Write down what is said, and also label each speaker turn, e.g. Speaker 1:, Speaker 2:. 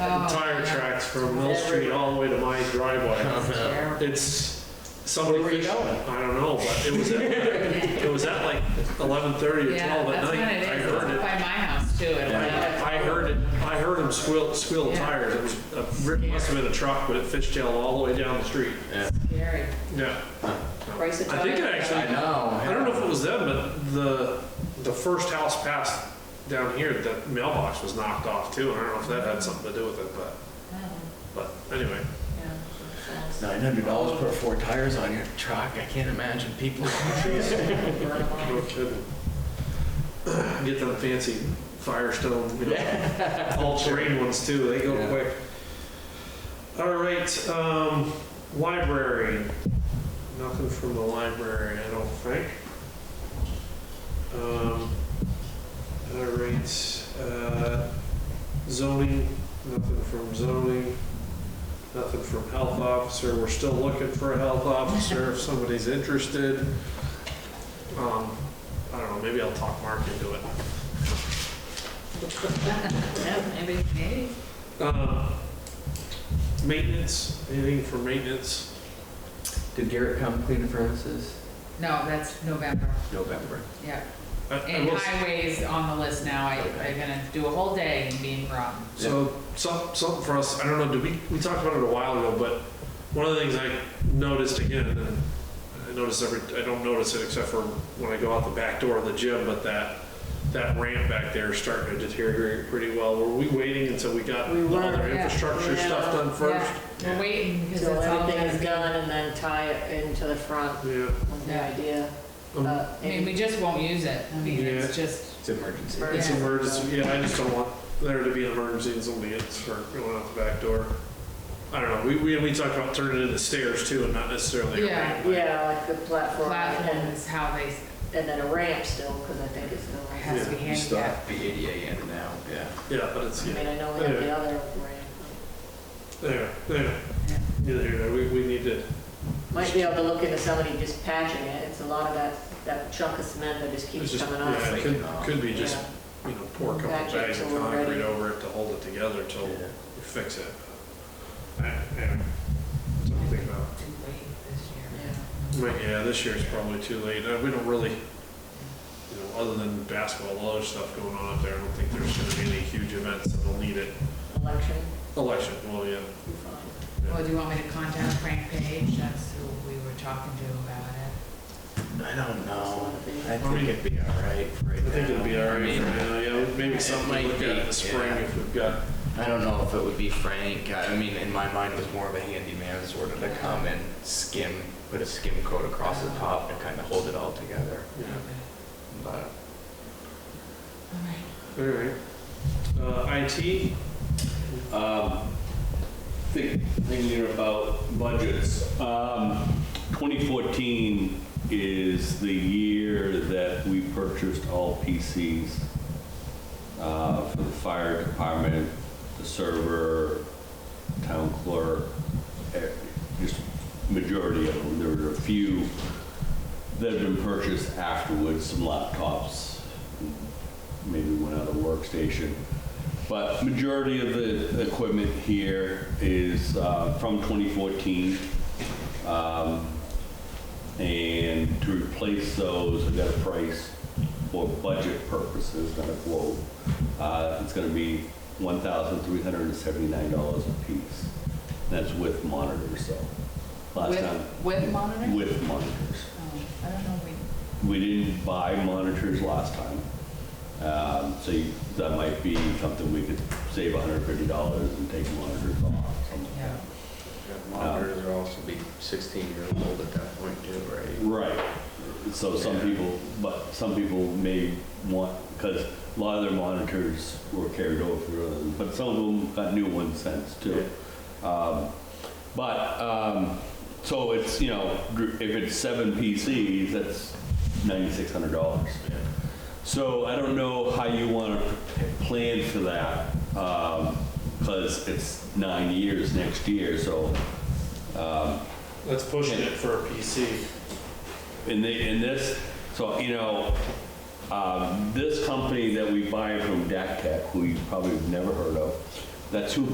Speaker 1: Oh,
Speaker 2: tire tracks from Mill Street all the way to my driveway. It's, somebody.
Speaker 3: Where were you
Speaker 2: fished-
Speaker 3: going?
Speaker 2: I don't know, but it was, at- it was at like eleven thirty or
Speaker 1: Yeah,
Speaker 2: twelve at
Speaker 1: that's what
Speaker 2: night.
Speaker 1: it
Speaker 2: I
Speaker 1: is. It's
Speaker 2: heard
Speaker 1: up
Speaker 2: it.
Speaker 1: by my house too. and when I-
Speaker 2: I heard it, I heard him squeal, squeal
Speaker 1: Yeah.
Speaker 2: tires. It was, a- it must have been a truck, but it fishtailed all the way down the street.
Speaker 1: Gary,
Speaker 2: Yeah.
Speaker 1: price of
Speaker 2: I think it
Speaker 1: tire.
Speaker 2: actually,
Speaker 3: know.
Speaker 2: I don't know if it was them, but the, the first house passed down here, the mailbox was knocked off too. I don't know if that had something to do with it, but,
Speaker 1: Oh,
Speaker 2: but anyway.
Speaker 3: Nine hundred dollars for four tires on your truck, I can't imagine people.
Speaker 2: No kidding. Get them fancy Firestone, you know, all terrain ones too, they go
Speaker 3: Yeah.
Speaker 2: quick. All right, um, library. Nothing from the library, I don't think. Um, all right, uh, zoning, nothing from zoning, nothing from health officer. We're still looking for a health officer if somebody's interested. Um, I don't know, maybe I'll talk Mark into it.
Speaker 1: Yeah, maybe, maybe.
Speaker 2: Um, Maintenance, anything for maintenance?
Speaker 3: Did Garrett come clean the premises?
Speaker 1: No, that's November,
Speaker 3: November.
Speaker 1: yeah.
Speaker 2: I- I
Speaker 1: And
Speaker 2: will Uh, s-
Speaker 1: highways on the list now, I, I'm gonna do a whole day in Bean Run.
Speaker 2: So, some, something for us, I don't know, did we, we talked about it a while ago, but one of the things I noticed again, and I notice every, I don't notice it except for when I go out the back door of the gym, but that, that ramp back there is starting to deteriorate pretty well. Were we waiting until we got
Speaker 4: We
Speaker 2: all
Speaker 4: were,
Speaker 2: their
Speaker 1: yeah.
Speaker 2: infrastructure stuff done first?
Speaker 1: Yeah, We're waiting because
Speaker 4: Till
Speaker 1: it's all
Speaker 4: everything
Speaker 1: gonna
Speaker 4: is
Speaker 1: be.
Speaker 4: done and then tie it into the front
Speaker 2: Yeah.
Speaker 4: was the
Speaker 1: Yeah.
Speaker 4: idea.
Speaker 2: Um,
Speaker 4: but
Speaker 1: I mean, we just won't use it. I mean, it's
Speaker 2: Yeah.
Speaker 1: just,
Speaker 3: It's emergency.
Speaker 2: It's
Speaker 1: Yeah.
Speaker 2: emergency, yeah, I just don't want there to be an emergency and somebody gets hurt going out the back door. I don't know, we, we, we talked about turning it into stairs too and not necessarily. a
Speaker 1: Yeah.
Speaker 2: ramp.
Speaker 4: Yeah, like the platform
Speaker 1: platform
Speaker 4: and,
Speaker 1: is how they,
Speaker 4: and then a ramp still, because I think it's still
Speaker 1: it
Speaker 4: ramp.
Speaker 1: has to be
Speaker 3: You still
Speaker 1: handicapped.
Speaker 3: have to be ADA in now, yeah.
Speaker 2: Yeah, but it's,
Speaker 4: I mean,
Speaker 2: yeah,
Speaker 4: I know we have the
Speaker 2: Yeah.
Speaker 4: other ramp.
Speaker 2: there, there, yeah, there, there, we, we need to,
Speaker 4: Might be able to look into somebody just patching it. It's a lot of that, that chunk of cement that just
Speaker 2: it's
Speaker 4: keeps
Speaker 2: just,
Speaker 4: coming off.
Speaker 2: yeah,
Speaker 4: oh,
Speaker 2: it could, could be just,
Speaker 4: Yeah.
Speaker 2: you know, pour a couple
Speaker 4: Patch it
Speaker 2: bags of
Speaker 4: till we're ready.
Speaker 2: concrete over it to hold it together till we
Speaker 3: Yeah.
Speaker 2: fix it. I- Yeah, something to think about.
Speaker 1: Too late this year.
Speaker 4: Yeah.
Speaker 2: Right, yeah, this year's probably too late. Uh, We don't really, you know, other than basketball, all other stuff going on up there, I don't think there's gonna be any huge events that'll need it.
Speaker 4: Election,
Speaker 2: Election, well, yeah.
Speaker 4: you're fine.
Speaker 1: Well, do you want me to contact Frank Page? That's who we were talking to about it.
Speaker 3: I don't know. Um, I
Speaker 2: I mean-
Speaker 3: think it'd be all right for
Speaker 2: I
Speaker 3: right now.
Speaker 2: think it'll be all
Speaker 3: I
Speaker 2: right
Speaker 3: mean,
Speaker 2: for now, yeah, maybe something to look at in the spring if we've got,
Speaker 3: I don't know if it would be Frank. I mean, in my mind, it was more of a handyman sort of to come and skim, put a skim coat across the top and kind of hold it all together.
Speaker 2: you
Speaker 1: Okay.
Speaker 2: know.
Speaker 3: But
Speaker 1: All right.
Speaker 2: All right. Uh, IT,
Speaker 5: Um, Think, thing there about budgets. Um, 2014 is the year that we purchased all PCs uh, for the fire department, the server, town clerk, eh, just majority of them. There were a few that have been purchased afterwards, some laptops, maybe one other workstation. But majority of the equipment here is uh, from 2014. Um, And to replace those, I got a price for budget purposes, not a quote. Uh, It's going to be $1,379 a piece. That's with monitors, so. Last time,
Speaker 1: With, with monitor?
Speaker 5: with monitors.
Speaker 1: Oh, I don't know, we,
Speaker 5: We didn't buy monitors last time. Um, So you- that might be something we could save $150 and take monitors off. something.
Speaker 1: yeah.
Speaker 3: monitors are also be 16 year old at that point too, right?
Speaker 5: Right. So some people, but some people may want, because a lot of their monitors were carried over, for other- but some of them got new ones since too. Um, But, um, so it's, you know, if it's seven PCs, that's $9,600. So I don't know how you want to plan for that, because it's nine years next year, so,
Speaker 2: that's pushing it for a PC.
Speaker 5: and they, and this, so, you know, um, this company that we buy from DAC Tech, who you probably have never heard of, that's who